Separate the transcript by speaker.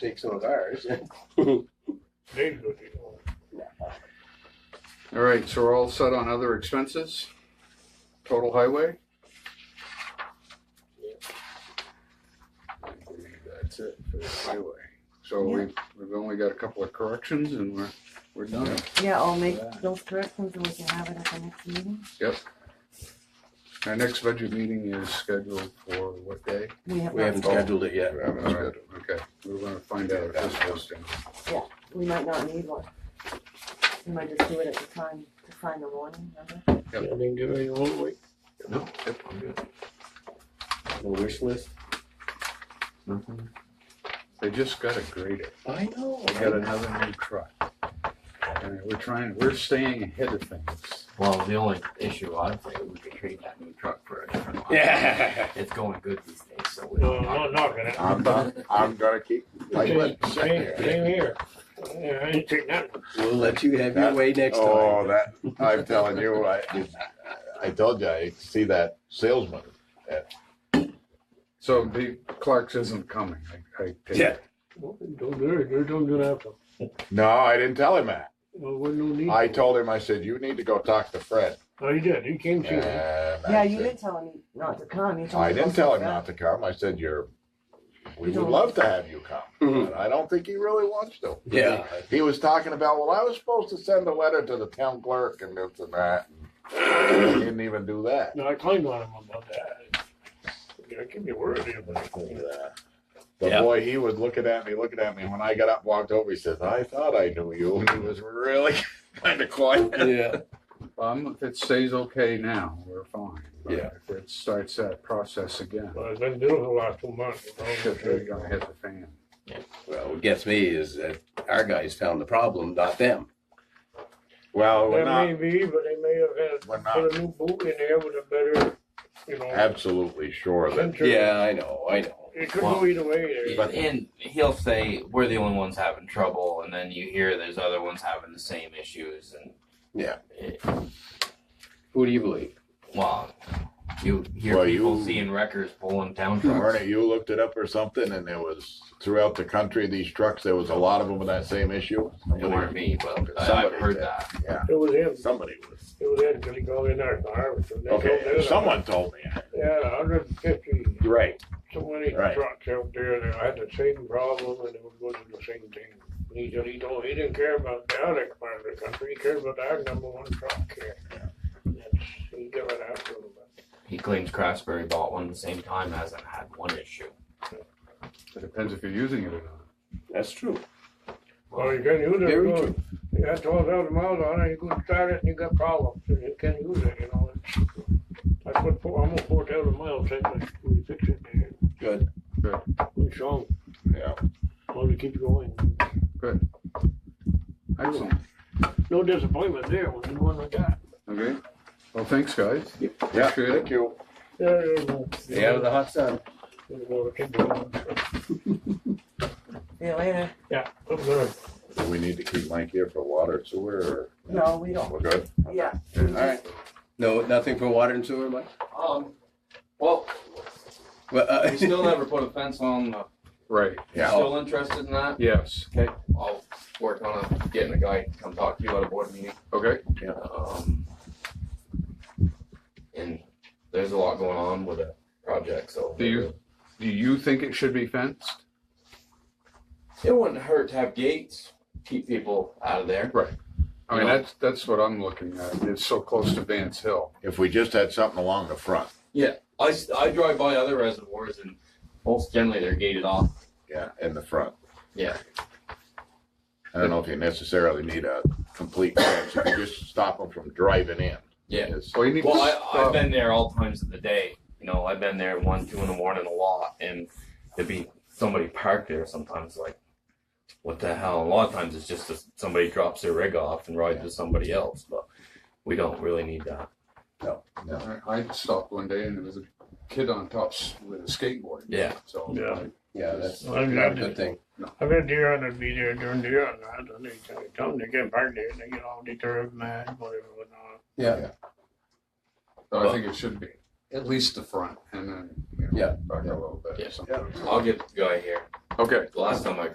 Speaker 1: take some of ours.
Speaker 2: They can go take one.
Speaker 3: All right, so we're all set on other expenses? Total highway? That's it for the highway. So we, we've only got a couple of corrections and we're, we're done.
Speaker 4: Yeah, I'll make those corrections and we can have it at the next meeting.
Speaker 3: Our next budget meeting is scheduled for what day?
Speaker 4: We have,
Speaker 1: We haven't
Speaker 4: not-
Speaker 1: scheduled it yet.
Speaker 3: We haven't scheduled, Okay, we're gonna find out if this posting.
Speaker 4: we might not need one. We might just do it at the time to find the warning, remember?
Speaker 3: Yep.
Speaker 2: I mean, give it a little wait.
Speaker 3: No, yep, I'm good.
Speaker 1: The wish list.
Speaker 5: Mm-hmm.
Speaker 3: They just got a grader.
Speaker 1: I know.
Speaker 3: They got another new truck. And we're trying, we're staying ahead of things.
Speaker 5: Well, the only issue I think we could trade that new truck for a different one.
Speaker 1: Yeah.
Speaker 5: It's going good these days, so we
Speaker 2: No, no, not gonna.
Speaker 6: I'm gonna, I'm gonna keep. I would.
Speaker 2: Same, same here. Yeah, I ain't taking that. one.
Speaker 1: We'll let you have your
Speaker 6: That-
Speaker 1: way next
Speaker 6: Oh,
Speaker 1: time.
Speaker 6: that, I'm telling you, I, I told you, I see that salesman.
Speaker 3: So the Clark's isn't coming. I, I take it.
Speaker 1: Yeah.
Speaker 2: Well, Don't do it, you don't do that. one.
Speaker 6: No, I didn't tell him that.
Speaker 2: Well, what no need.
Speaker 6: I
Speaker 2: for it.
Speaker 6: told him, I said, you need to go talk to Fred.
Speaker 2: Oh, he did, he came to
Speaker 6: And
Speaker 2: me.
Speaker 6: I
Speaker 4: Yeah, you
Speaker 6: said-
Speaker 4: did tell him not to come. You told
Speaker 6: I
Speaker 4: him
Speaker 6: didn't
Speaker 4: to
Speaker 6: tell him
Speaker 4: come.
Speaker 6: not to come. I said, you're, we
Speaker 4: You
Speaker 6: would
Speaker 4: don't-
Speaker 6: love to have you come.
Speaker 1: Mhm.
Speaker 6: And I don't think he really wants to.
Speaker 1: Yeah.
Speaker 6: He was talking about, well, I was supposed to send a letter to the town clerk and this and that. and He didn't even do that.
Speaker 2: No, I claimed on him about that. Yeah, give me a word here, but I
Speaker 6: And,
Speaker 2: can't.
Speaker 6: uh, The
Speaker 1: Yeah.
Speaker 6: boy, he was looking at me, looking at me. When I got up, and walked over, he says, I thought I knew you. And he was really kind of quiet.
Speaker 1: Yeah.
Speaker 3: Um, if it stays okay now, we're fine. But
Speaker 1: Yeah.
Speaker 3: If it starts that process again,
Speaker 2: Well, I've been doing it the last two months. you know,
Speaker 3: shit, they're gonna
Speaker 2: and
Speaker 3: hit the fan.
Speaker 1: Well, what gets me is that our guys found the problem, not them.
Speaker 6: Well, we're
Speaker 2: That may
Speaker 6: not,
Speaker 2: be, but they may have
Speaker 6: we're
Speaker 2: had, put
Speaker 6: not
Speaker 2: a new boot in there with a better, you know.
Speaker 6: absolutely sure that,
Speaker 2: sensor.
Speaker 1: Yeah, I know, I know.
Speaker 2: It could go either way there.
Speaker 6: But-
Speaker 5: and he'll say we're the only ones having trouble, and then you hear there's other ones having the same issues, and
Speaker 6: Yeah.
Speaker 5: it,
Speaker 1: Who do you believe?
Speaker 5: well, you hear
Speaker 6: Well,
Speaker 5: people
Speaker 6: you-
Speaker 5: seeing wreckers pulling town trucks.
Speaker 6: Ernie, you looked it up or something, and there was throughout the country, these trucks, there was a lot of them with that same issue.
Speaker 5: It weren't me, but I, I've
Speaker 6: Somebody
Speaker 5: heard
Speaker 6: did.
Speaker 5: that.
Speaker 2: It was him,
Speaker 6: Somebody was.
Speaker 2: it was him, because he called in our car. so they don't
Speaker 6: Okay,
Speaker 2: do that.
Speaker 6: someone told me.
Speaker 2: Yeah, hundred and fifty,
Speaker 6: Right.
Speaker 2: so many
Speaker 6: Right.
Speaker 2: trucks out there that had the same problem and they would go through the same thing. He said he don't, he didn't care about the other part of the country, he cared about our number one truck here. That's, he give it out to them.
Speaker 5: He claims Craftsbury bought one at the same time, hasn't had one issue.
Speaker 3: It depends if you're using it or not.
Speaker 1: That's true.
Speaker 2: Well, you can use it,
Speaker 1: Very
Speaker 2: well, you got twelve thousand miles on it, you could start it and you got problems, and you can't use it, you know. it's- I put four, almost four thousand miles in, but we fixed it there.
Speaker 1: Good.
Speaker 3: Good.
Speaker 2: We shown,
Speaker 6: Yeah.
Speaker 2: well, to keep going.
Speaker 3: Excellent.
Speaker 2: No disappointment there with the one we got.
Speaker 3: Okay. Well, thanks, guys.
Speaker 6: Yeah,
Speaker 3: Appreciate it.
Speaker 6: thank you.
Speaker 2: Yeah, yeah, well,
Speaker 1: Stay out of the hot sun.
Speaker 2: we're gonna keep going.
Speaker 4: See you later.
Speaker 2: Yeah, I'm gonna
Speaker 6: Do we need to keep Mike here for water sewer or?
Speaker 4: No, we don't.
Speaker 6: We're good?
Speaker 4: Yeah.
Speaker 1: All right. No, nothing for water and sewer, Mike?
Speaker 5: Um, well,
Speaker 1: Well, uh,
Speaker 5: we still never put a fence on. Uh,
Speaker 3: Right.
Speaker 6: Yeah.
Speaker 5: Still interested in that?
Speaker 3: Yes.
Speaker 5: Okay, I'll work on it, getting a guy to come talk to you at a board meeting.
Speaker 3: Okay.
Speaker 5: Um, and there's a lot going on with a project, so.
Speaker 3: Do you- Do you think it should be fenced?
Speaker 5: It wouldn't hurt to have gates, keep people out of there.
Speaker 3: I mean,
Speaker 5: No.
Speaker 3: that's, that's what I'm looking at. It's so close to Vance Hill.
Speaker 6: If we just had something along the front.
Speaker 5: I, s- I drive by other reservoirs and most generally they're gated off.
Speaker 6: Yeah, in the front.
Speaker 5: Yeah.
Speaker 6: I don't know if you necessarily need a complete fence, you can just stop them from driving in.
Speaker 5: Yeah.
Speaker 3: Well, you need to
Speaker 5: Well, I, I've
Speaker 3: stop.
Speaker 5: been there all times of the day. You know, I've been there one, two in the morning a lot and there'd be somebody parked there sometimes like, what the hell? A lot of times it's just that somebody drops their rig off and rides with somebody else, but we don't really need that.
Speaker 6: No.
Speaker 3: I I stopped one day and there was a kid on top s- with a skateboard.
Speaker 5: Yeah.
Speaker 3: So.
Speaker 2: Yeah.
Speaker 3: I-
Speaker 1: yeah, that's
Speaker 2: Well, I'm
Speaker 1: not a
Speaker 2: glad
Speaker 1: good thing.
Speaker 2: I've been deer hunting, be there during deer hunting, and they tell- tell them to get back there, and they get all deterred, mad, whatever, whatnot.
Speaker 1: Yeah.
Speaker 3: But I think it should be at least the front and then, you know,
Speaker 1: Yeah.
Speaker 3: back a little bit.
Speaker 5: Yeah.
Speaker 3: something.
Speaker 5: I'll get the guy here.
Speaker 3: Okay.
Speaker 5: The last time I